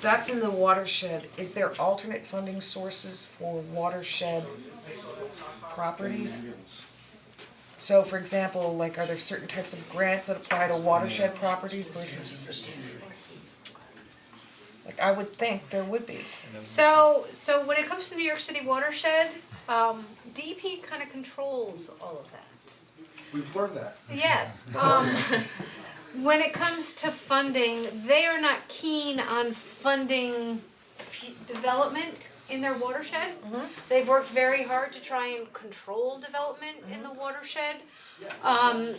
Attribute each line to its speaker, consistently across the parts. Speaker 1: that's in the watershed, is there alternate funding sources for watershed properties? So for example, like are there certain types of grants that apply to watershed properties versus? Like I would think there would be,
Speaker 2: So, so when it comes to New York City watershed, um, DEP kind of controls all of that.
Speaker 3: We've learned that.
Speaker 2: Yes, um, when it comes to funding, they are not keen on funding f- development in their watershed. They've worked very hard to try and control development in the watershed. Um,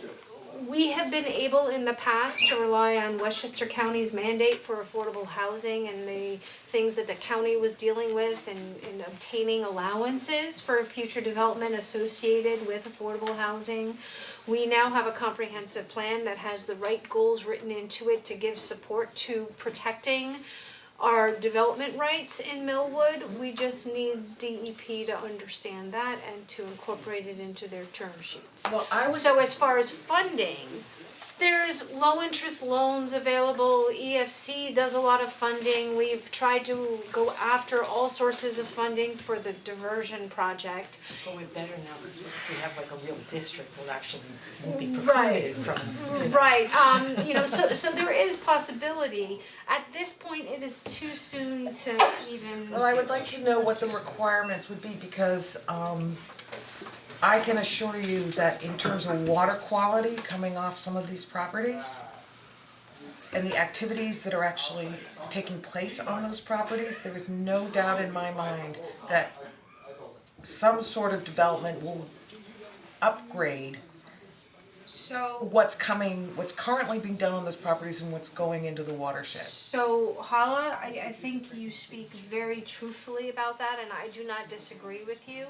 Speaker 2: we have been able in the past to rely on Westchester County's mandate for affordable housing and the things that the county was dealing with in, in obtaining allowances for future development associated with affordable housing. We now have a comprehensive plan that has the right goals written into it to give support to protecting our development rights in Millwood. We just need DEP to understand that and to incorporate it into their term sheets.
Speaker 1: well, I would.
Speaker 2: So as far as funding, there's low interest loans available, EFC does a lot of funding, we've tried to go after all sources of funding for the diversion project.
Speaker 4: But we're better now, because if we have like a real district, we'll actually be
Speaker 2: Right.
Speaker 4: precluded from, you know,
Speaker 2: Right, um, you know, so so there is possibility, at this point, it is too soon to even.
Speaker 1: Well, I would like to know what the requirements would be because um I can assure you that in terms of water quality coming off some of these properties and the activities that are actually taking place on those properties, there is no doubt in my mind that some sort of development will upgrade
Speaker 2: So,
Speaker 1: what's coming, what's currently being done on those properties and what's going into the watershed.
Speaker 2: so Hala, I I think you speak very truthfully about that and I do not disagree with you.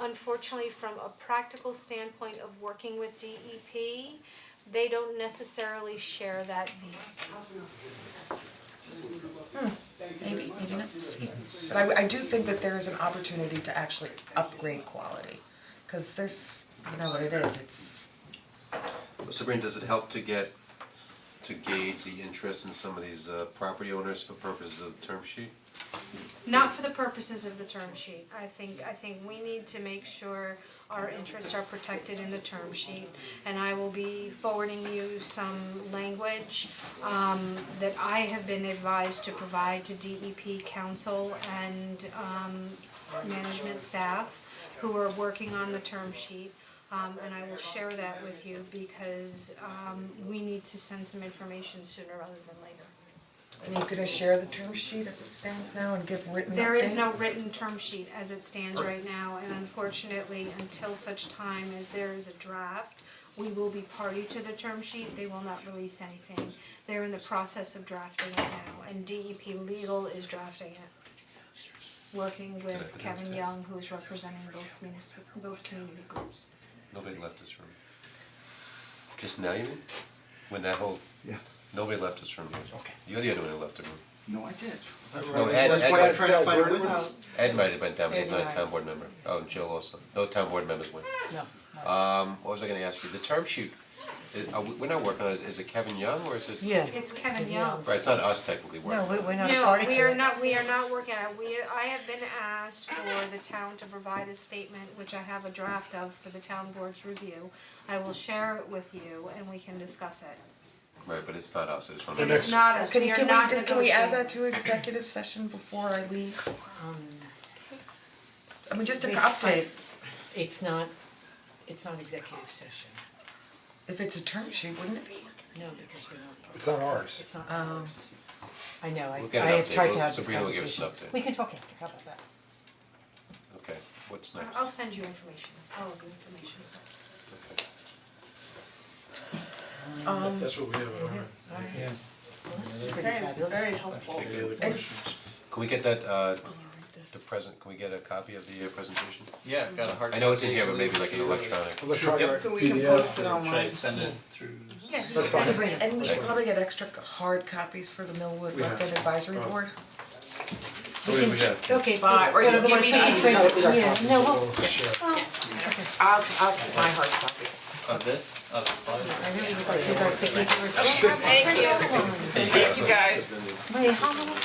Speaker 2: Unfortunately, from a practical standpoint of working with DEP, they don't necessarily share that view.
Speaker 1: Maybe, maybe not, see, but I I do think that there is an opportunity to actually upgrade quality, cause there's, you know what it is, it's,
Speaker 5: Sabrina, does it help to get, to gauge the interest in some of these uh, property owners for purposes of term sheet?
Speaker 2: Not for the purposes of the term sheet. I think, I think we need to make sure our interests are protected in the term sheet. And I will be forwarding you some language um that I have been advised to provide to DEP council and um management staff who are working on the term sheet. Um and I will share that with you because um we need to send some information sooner rather than later.
Speaker 1: and you're gonna share the term sheet as it stands now and give written update?
Speaker 2: There is no written term sheet as it stands right now, and unfortunately, until such time as there is a draft, we will be party to the term sheet, they will not release anything. They're in the process of drafting it now, and DEP Legal is drafting it. Working with Kevin Young, who is representing both munis- both community groups.
Speaker 5: Nobody left this room. Just now, you mean? When that whole,
Speaker 6: Yeah,
Speaker 5: nobody left this room.
Speaker 6: Okay.
Speaker 5: You're the other one who left the room.
Speaker 6: no, I did.
Speaker 5: No, Ed,
Speaker 3: That's
Speaker 5: Ed,
Speaker 3: why I'm
Speaker 5: went-
Speaker 3: trying to find a
Speaker 6: We're-
Speaker 3: window.
Speaker 5: Ed might have went down, but he's not a town board member. Oh, and Jill also. No town board members went.
Speaker 4: no, no.
Speaker 5: Um, what was I gonna ask you? The term sheet, is, are we, we're not working on it. Is it Kevin Young or is it?
Speaker 7: Yeah,
Speaker 2: It's Kevin Young.
Speaker 5: Right, it's not us technically working.
Speaker 7: no, we,
Speaker 5: on it.
Speaker 7: we're not a
Speaker 2: No,
Speaker 7: party to
Speaker 2: we are
Speaker 7: it.
Speaker 2: not, we are not working on it, we, I have been asked for the town to provide a statement, which I have a draft of for the town board's review. I will share it with you and we can discuss it.
Speaker 5: Right, but it's not us. I just wanna.
Speaker 2: It
Speaker 5: make
Speaker 2: is not us,
Speaker 1: Can
Speaker 2: we
Speaker 1: you,
Speaker 2: are
Speaker 1: can
Speaker 2: not
Speaker 1: we, just- can we add that
Speaker 2: negotiating.
Speaker 1: to executive session before I leave?
Speaker 4: Um,
Speaker 1: I mean, just an
Speaker 7: Wait,
Speaker 1: update,
Speaker 4: it's not, it's not executive session,
Speaker 1: if it's a term sheet, wouldn't it be?
Speaker 4: no, because we're not,
Speaker 3: It's not ours.
Speaker 4: it's not ours. Um, I know, I,
Speaker 5: We'll get
Speaker 4: I
Speaker 5: an
Speaker 4: have
Speaker 5: update.
Speaker 4: tried to
Speaker 5: We'll-
Speaker 4: have this
Speaker 5: Sabrina will give us an
Speaker 4: conversation.
Speaker 5: update.
Speaker 4: We can talk after, how about that?
Speaker 5: Okay, what's next?
Speaker 2: I'll send you information, all of the information.
Speaker 1: Um,
Speaker 8: That's what we have on our.
Speaker 4: Well, this is pretty fabulous.
Speaker 5: Okay, good. Can we get that, uh, the present, can we get a copy of the uh, presentation?
Speaker 9: Yeah, I've got a hard.
Speaker 5: I know it's in here, but maybe like an electronic.
Speaker 3: Electronic.
Speaker 8: So
Speaker 7: we can post it online.
Speaker 9: Should I send it through?
Speaker 2: Yeah.
Speaker 3: That's fine.
Speaker 4: Sabrina.
Speaker 1: and we should probably get extra hard copies for the Millwood
Speaker 8: We have-
Speaker 1: West End Advisory
Speaker 8: oh.
Speaker 1: Board.
Speaker 8: What do we have?
Speaker 4: Okay, but,
Speaker 7: Or
Speaker 4: but
Speaker 7: you give
Speaker 4: otherwise
Speaker 7: me
Speaker 4: we can
Speaker 7: these.
Speaker 4: print it.
Speaker 3: We got
Speaker 4: yeah,
Speaker 3: copies,
Speaker 4: no,
Speaker 3: so
Speaker 4: well,
Speaker 3: we'll share.
Speaker 7: I'll, I'll keep my hard copy.
Speaker 9: Of this, of the slide?
Speaker 4: I really would like you guys to keep yours.
Speaker 7: Thank you. Thank you guys.
Speaker 4: Wait, how many